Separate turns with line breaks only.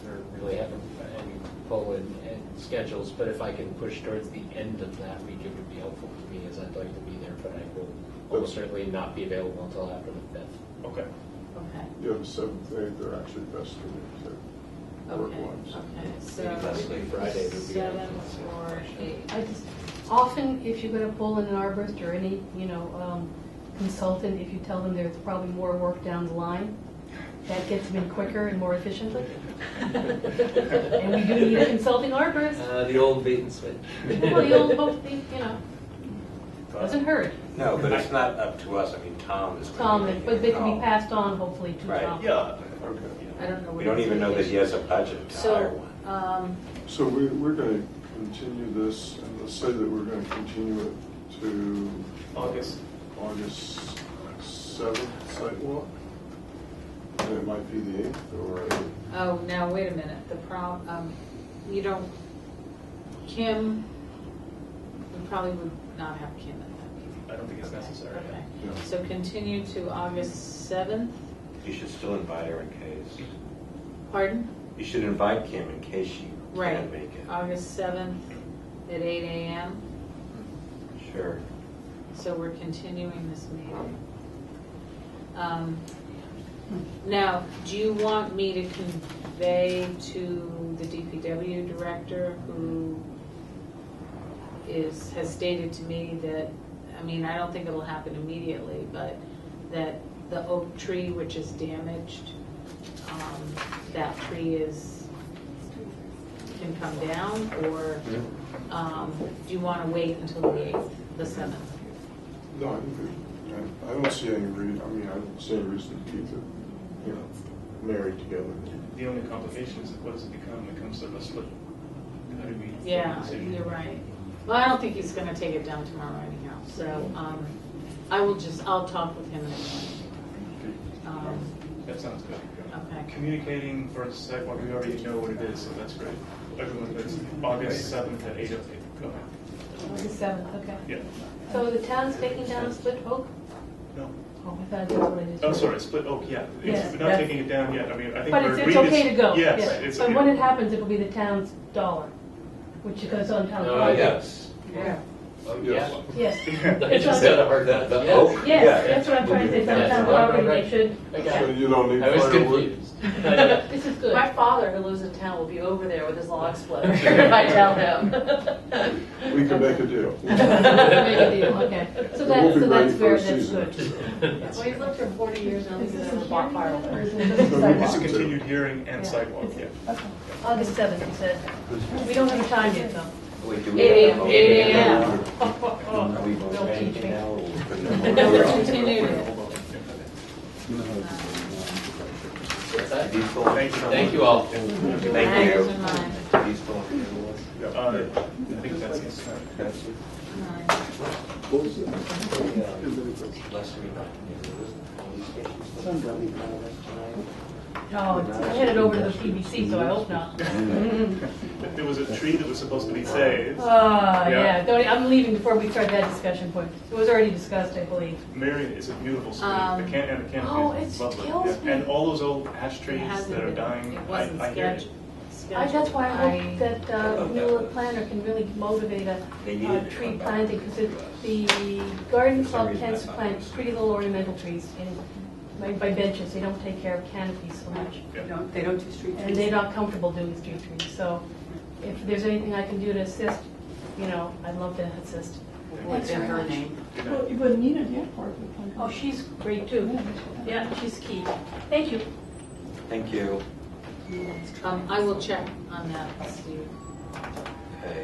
uh, schedules, but if I can push towards the end of that week, it would be helpful for me, as I'd like to be there, but I will almost certainly not be available until after the fifth.
Okay.
Okay,
You have seventh, eighth, are actually best for their work
okay,
ones.
okay, so.
Maybe Leslie Friday would be. our-
Seven or eight.
I just, often, if you're gonna pull in an arborist or any, you know, um, consultant, if you tell them there's probably more work down the line, that gets them in quicker and more efficiently. And we do need a Oh, consulting arborist.
Uh, the old bait and switch.
Well, you'll both be, you know, doesn't hurt,
No, but it's not up to us, I mean, Tom is.
Tom,
making
but they
the
can
call.
be passed on hopefully to
Right,
Tom.
Yeah.
Okay.
I don't know.
We
what
don't
his
even know that he
vacation-
has a budget to hire
So,
one.
um,
So we, we're going to continue this, and let's say that we're going to continue it to
August.
August seventh sidewalk. And it might be the eighth or,
oh, now, wait a minute, the prob, um, you don't, Kim, we probably would not have Kim at that meeting.
I don't think it's necessary.
Okay,
Yeah.
so continue to August seventh,
You should still invite her in case,
pardon?
you should invite Kim in case she
Right,
can't make it.
August seventh at eight AM,
Sure.
so we're continuing this meeting. Um, Now, do you want me to convey to the DPW director who is, has stated to me that, I mean, I don't think it'll happen immediately, but that the oak tree which is damaged, um, that tree is, can come down, or um, do you want to wait until the 8th, the 7th?
no, I think, we- I- I don't see any reason, I mean, I don't see any reason to keep it, you know, married together.
The only complication is what does it become? It becomes sort of a split. How do we? make a
Yeah,
decision?
you're right. Well, I don't think he's going to take it down tomorrow anyhow, so um, I will just, I'll talk with him. Um,
That sounds good.
Okay.
Communicating for the sidewalk, we already know what it is, so that's great. Everyone, that's August seventh at eight okay, go ahead.
August seventh, okay.
Yeah.
So the town's taking down a split oak?
No.
Oh, I thought that's what I just.
Oh, sorry, split, oh, yeah. It's-
Yeah,
We're not
that's-
taking it down yet. I mean, I think
But
we're
it's,
agreed.
it's okay to go.
Yes,
yeah.
it's.
But when it happens, it'll be the town's dollar, which goes on town.
Oh,
property.
Yes.
Yeah.
Oh,
Yes.
yeah.
Yes,
I just had a hard time.
The
Yes.
Oh.
oak?
yes,
Yeah.
that's what I'm trying to say, it's on
Yes.
town
Right, right,
property,
right.
they should,
So
Okay.
you don't need
I was
firewood?
confused.
this is good.
My father, who lives in town, will be over there with his log splitter if I tell him.
We can make a deal.
Make a deal, okay. So
We'll
that,
be ready
so that's
for
fair,
a
that's
season or
good.
two.
Well, he's lived for 40 years now,
Is
he's
this a
never bought
hearing yet, or
fireworks.
is it just a
It's a
sidewalk?
continued hearing and
Yeah.
sidewalk, yeah.
August seventh, you said. We don't have a time yet, though.
Wait, do we
Eight
have a vote?
a- eight AM.
Are we
Don't
voting
teach
anything
me.
now? or we're putting it on?
No, we're continuing.
What's that?
Are you still-
Thank you.
Thank you all.
Thank you.
Nine, nine,
Are you still on the list?
Uh, I think that's it.
That's it.
nine.
Last week. All these issues.
Oh, it's- I headed over to the PBC, so I hope not.
There was a tree that was supposed to be saved.
Ah,
Yeah.
yeah, don't, I'm leaving before we start that discussion point. It was already discussed, I believe.
Marion is a beautiful street.
Um,
The can, and the
oh,
canopy
it
is lovely.
kills
Yeah.
me.
And all those old ash
It
trees
hasn't
that are
been-
dying,
It
I,
wasn't
I hear
sketch-
you.
I,
scheduled.
that's why I
I-
hope that uh, Mueller Planner can really motivate a
They
uh,
needed to
tree
come back.
planting, because the garden
For some
club
reason,
tends to
I thought it
plant
was-
pretty little ornamental trees in, by- by benches, they don't take care of canopies so much.
Yeah.
Don't- They don't do street
And they're not comfortable doing street trees, so if there's anything I can do to assist, you know, I'd love to assist.
What's her name?
Good night.
Well, you would need an airport. with one.
Oh, she's great too. Yeah, she's key. Thank you.
Thank you.
Um, I will check on that, Steve.